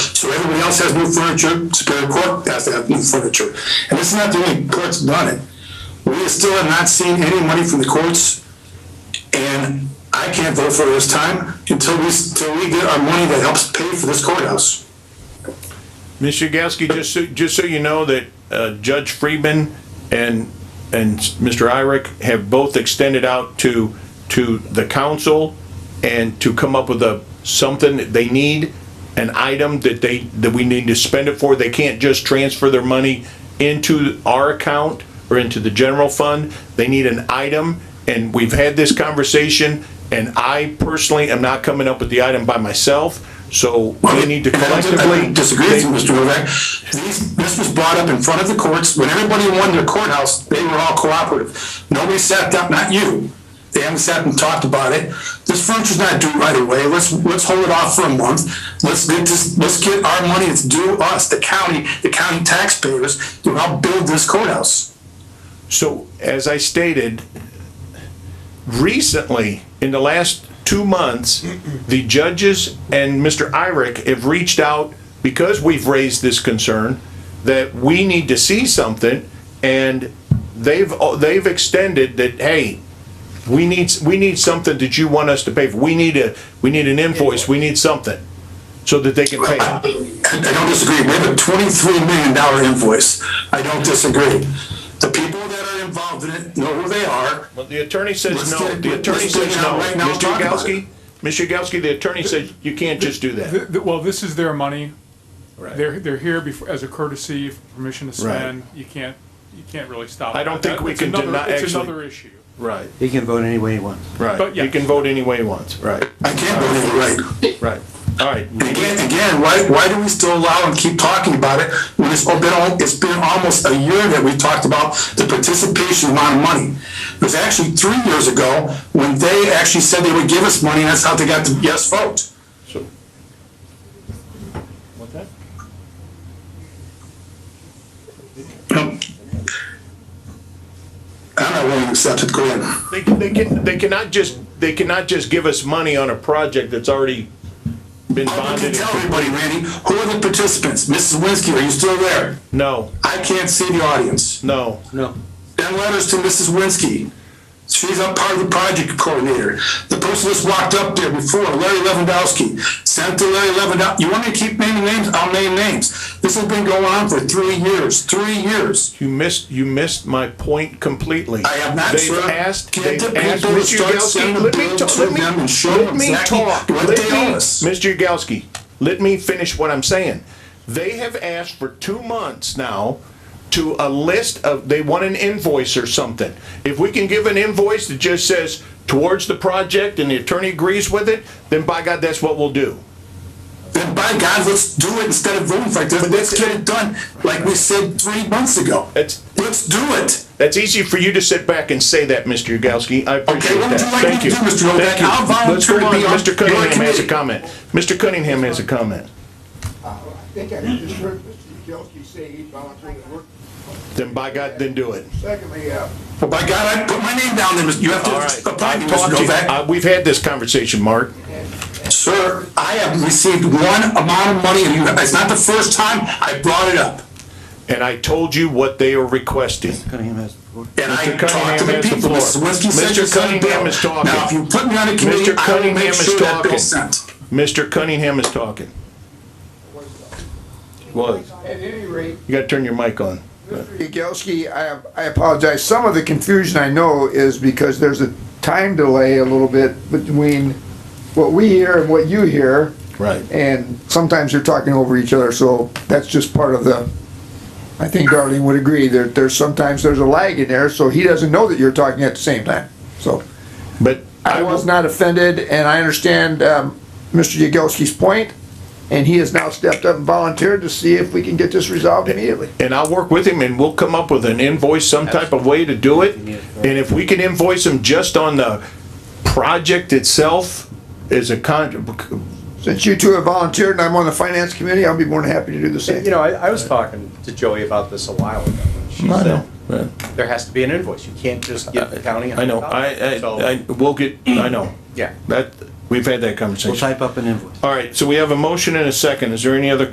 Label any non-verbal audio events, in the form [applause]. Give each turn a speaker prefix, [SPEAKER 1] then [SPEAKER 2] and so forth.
[SPEAKER 1] So everybody else has new furniture, Superior Court has to have new furniture. And it's not the only court's done it. We still have not seen any money from the courts, and I can't vote for this time until we, until we get our money that helps pay for this courthouse.
[SPEAKER 2] Ms. Yagowski, just so, just so you know that uh, Judge Friedman and, and Mr. Irick have both extended out to, to the council and to come up with a, something that they need, an item that they, that we need to spend it for. They can't just transfer their money into our account or into the general fund. They need an item, and we've had this conversation, and I personally am not coming up with the item by myself, so we need to
[SPEAKER 1] And [laughs] I don't- I
[SPEAKER 2] collectively.
[SPEAKER 1] don't Disagree with you, Mr. Novak. These, this was brought up in front of the courts. When everybody won their courthouse, they were all cooperative. Nobody sat down, not you. They haven't sat and talked about it. This furniture's not due right away. Let's, let's hold it off for a month. Let's get this, let's get our money that's due us, the county, the county taxpayers, to help build this courthouse.
[SPEAKER 2] So, as I stated, recently, in the last two months, the judges and Mr. Irick have reached out because we've raised this concern that we need to see something, and they've, they've extended that, hey, we need, we need something that you want us to pay for. We need a, we need an invoice, we need something, so that they can pay. it.
[SPEAKER 1] I don't disagree. We have a twenty-three million dollar invoice. I don't disagree. The people that are involved in it know who they are.
[SPEAKER 2] Well, the attorney
[SPEAKER 1] Let's
[SPEAKER 2] says no,
[SPEAKER 1] get-
[SPEAKER 2] the
[SPEAKER 1] let's
[SPEAKER 2] attorney
[SPEAKER 1] get it
[SPEAKER 2] says
[SPEAKER 1] out
[SPEAKER 2] no.
[SPEAKER 1] right now and
[SPEAKER 2] Mr.
[SPEAKER 1] talk about
[SPEAKER 2] Yagowski, Mr. Yagowski, the attorney says you can't just do that.
[SPEAKER 3] Th- th- Well, this is their money.
[SPEAKER 2] Right.
[SPEAKER 3] They're, they're here before, as a courtesy, for permission to spend. You can't, you can't really stop.
[SPEAKER 2] I don't
[SPEAKER 3] that.
[SPEAKER 2] think we
[SPEAKER 3] It's
[SPEAKER 2] can
[SPEAKER 3] another-
[SPEAKER 2] deny-
[SPEAKER 3] It's
[SPEAKER 2] actually-
[SPEAKER 3] another issue.
[SPEAKER 2] Right,
[SPEAKER 4] He can vote any way he wants.
[SPEAKER 2] right.
[SPEAKER 3] But
[SPEAKER 2] You
[SPEAKER 3] yeah.
[SPEAKER 2] can vote any way you want, right,
[SPEAKER 1] I can't believe it, right?
[SPEAKER 2] right. All right,
[SPEAKER 1] Again, again, why, why do we still allow and keep talking about it when it's been, al- it's been almost a year that we talked about the participation amount of money? It was actually three years ago when they actually said they would give us money, and that's how they got the yes vote.
[SPEAKER 2] so. What's that?
[SPEAKER 1] I'm not willing to accept it, go ahead.
[SPEAKER 2] They, can- they can, they cannot just, they cannot just give us money on a project that's already been
[SPEAKER 1] I can
[SPEAKER 2] bonded.
[SPEAKER 1] tell everybody, Randy, who are the participants? Mrs. Winsky, are you still there?
[SPEAKER 2] No,
[SPEAKER 1] I can't see the audience.
[SPEAKER 2] no,
[SPEAKER 4] No.
[SPEAKER 1] Send letters to Mrs. Winsky. She's a part of the project coordinator. The person that's walked up there before, Larry Lewandowski, sent to Larry Lewandowski. You want me to keep naming names? I'll name names. This has been going on for three years, three years.
[SPEAKER 2] you missed, you missed my point completely.
[SPEAKER 1] I have not, sir.
[SPEAKER 2] They've asked,
[SPEAKER 1] Get
[SPEAKER 2] they've
[SPEAKER 1] the
[SPEAKER 2] asked,
[SPEAKER 1] people to
[SPEAKER 2] Mr.
[SPEAKER 1] start sending
[SPEAKER 2] Yagowski,
[SPEAKER 1] the
[SPEAKER 2] let me,
[SPEAKER 1] bill
[SPEAKER 2] ta-
[SPEAKER 1] to
[SPEAKER 2] let me,
[SPEAKER 1] them and show
[SPEAKER 2] let
[SPEAKER 1] them
[SPEAKER 2] me
[SPEAKER 1] exactly
[SPEAKER 2] talk.
[SPEAKER 1] what
[SPEAKER 2] Let
[SPEAKER 1] they
[SPEAKER 2] me-
[SPEAKER 1] owe us.
[SPEAKER 2] Mr. Yagowski, let me finish what I'm saying. They have asked for two months now to a list of, they want an invoice or something. If we can give an invoice that just says towards the project and the attorney agrees with it, then by God, that's what we'll do.
[SPEAKER 1] Then by God, let's do it instead of voting like this. Let's get it done like we said three months ago.
[SPEAKER 2] It's-
[SPEAKER 1] Let's do it.
[SPEAKER 2] That's easy for you to sit back and say that, Mr. Yagowski. I
[SPEAKER 1] Okay,
[SPEAKER 2] appreciate
[SPEAKER 1] what would
[SPEAKER 2] that.
[SPEAKER 1] you like me
[SPEAKER 2] Thank
[SPEAKER 1] to
[SPEAKER 2] you.
[SPEAKER 1] do, Mr. Novak?
[SPEAKER 2] Thank you.
[SPEAKER 1] I'll
[SPEAKER 2] Let's
[SPEAKER 1] volunteer
[SPEAKER 2] go
[SPEAKER 1] to
[SPEAKER 2] on.
[SPEAKER 1] be on
[SPEAKER 2] Mr.
[SPEAKER 1] your
[SPEAKER 2] Cunningham has a
[SPEAKER 1] committee.
[SPEAKER 2] comment. Mr. Cunningham has a comment.
[SPEAKER 5] I think I just heard Mr. Yagowski say he volunteered to work.
[SPEAKER 2] Then by God, then do it.
[SPEAKER 5] Secondly, uh,
[SPEAKER 1] Well, by God, I put my name down there. Mr. You have
[SPEAKER 2] All right.
[SPEAKER 1] to apply me,
[SPEAKER 2] I've
[SPEAKER 1] Mr.
[SPEAKER 2] talked to you.
[SPEAKER 1] Novak.
[SPEAKER 2] Uh, We've had this conversation, Mark.
[SPEAKER 1] Sir, I have received one amount of money, and you- it's not the first time I brought it up.
[SPEAKER 2] And I told you what they are requesting.
[SPEAKER 4] Cunningham has.
[SPEAKER 1] And I
[SPEAKER 2] Mr.
[SPEAKER 1] talked to the
[SPEAKER 2] Cunningham has the
[SPEAKER 1] people,
[SPEAKER 2] floor.
[SPEAKER 1] Mr. Winsky said
[SPEAKER 2] Mr.
[SPEAKER 1] you sent a
[SPEAKER 2] Cunningham
[SPEAKER 1] bill.
[SPEAKER 2] is talking.
[SPEAKER 1] Now, if you put me on a committee,
[SPEAKER 2] Mr.
[SPEAKER 1] I will
[SPEAKER 2] Cunningham
[SPEAKER 1] make
[SPEAKER 2] is
[SPEAKER 1] sure that
[SPEAKER 2] talking.
[SPEAKER 1] bill's sent.
[SPEAKER 2] Mr. Cunningham is talking. Was.
[SPEAKER 5] at any rate,
[SPEAKER 2] You gotta turn your mic on.
[SPEAKER 5] Yagowski, I, I apologize. Some of the confusion I know is because there's a time delay a little bit between what we hear and what you hear.
[SPEAKER 2] Right.
[SPEAKER 5] And sometimes they're talking over each other, so that's just part of the, I think Darlene would agree, there, there's sometimes there's a lag in there, so he doesn't know that you're talking at the same time, so.
[SPEAKER 2] But
[SPEAKER 5] I was not offended, and I understand um, Mr. Yagowski's point, and he has now stepped up and volunteered to see if we can get this resolved immediately.
[SPEAKER 2] and I'll work with him and we'll come up with an invoice, some type of way to do it. And if we can invoice him just on the project itself as a con,
[SPEAKER 5] Since you two have volunteered and I'm on the finance committee, I'll be more than happy to do the same.
[SPEAKER 6] You know, I, I was talking to Joey about this a while ago. She
[SPEAKER 2] I know.
[SPEAKER 6] said, there has to be an invoice. You can't just give the county.
[SPEAKER 2] I know, I,
[SPEAKER 6] So,
[SPEAKER 2] I, I, we'll get, I know.
[SPEAKER 6] Yeah.
[SPEAKER 2] That, we've had that
[SPEAKER 4] We'll
[SPEAKER 2] conversation.
[SPEAKER 4] type up an invoice.
[SPEAKER 2] All right, so we have a motion and a second. Is there any other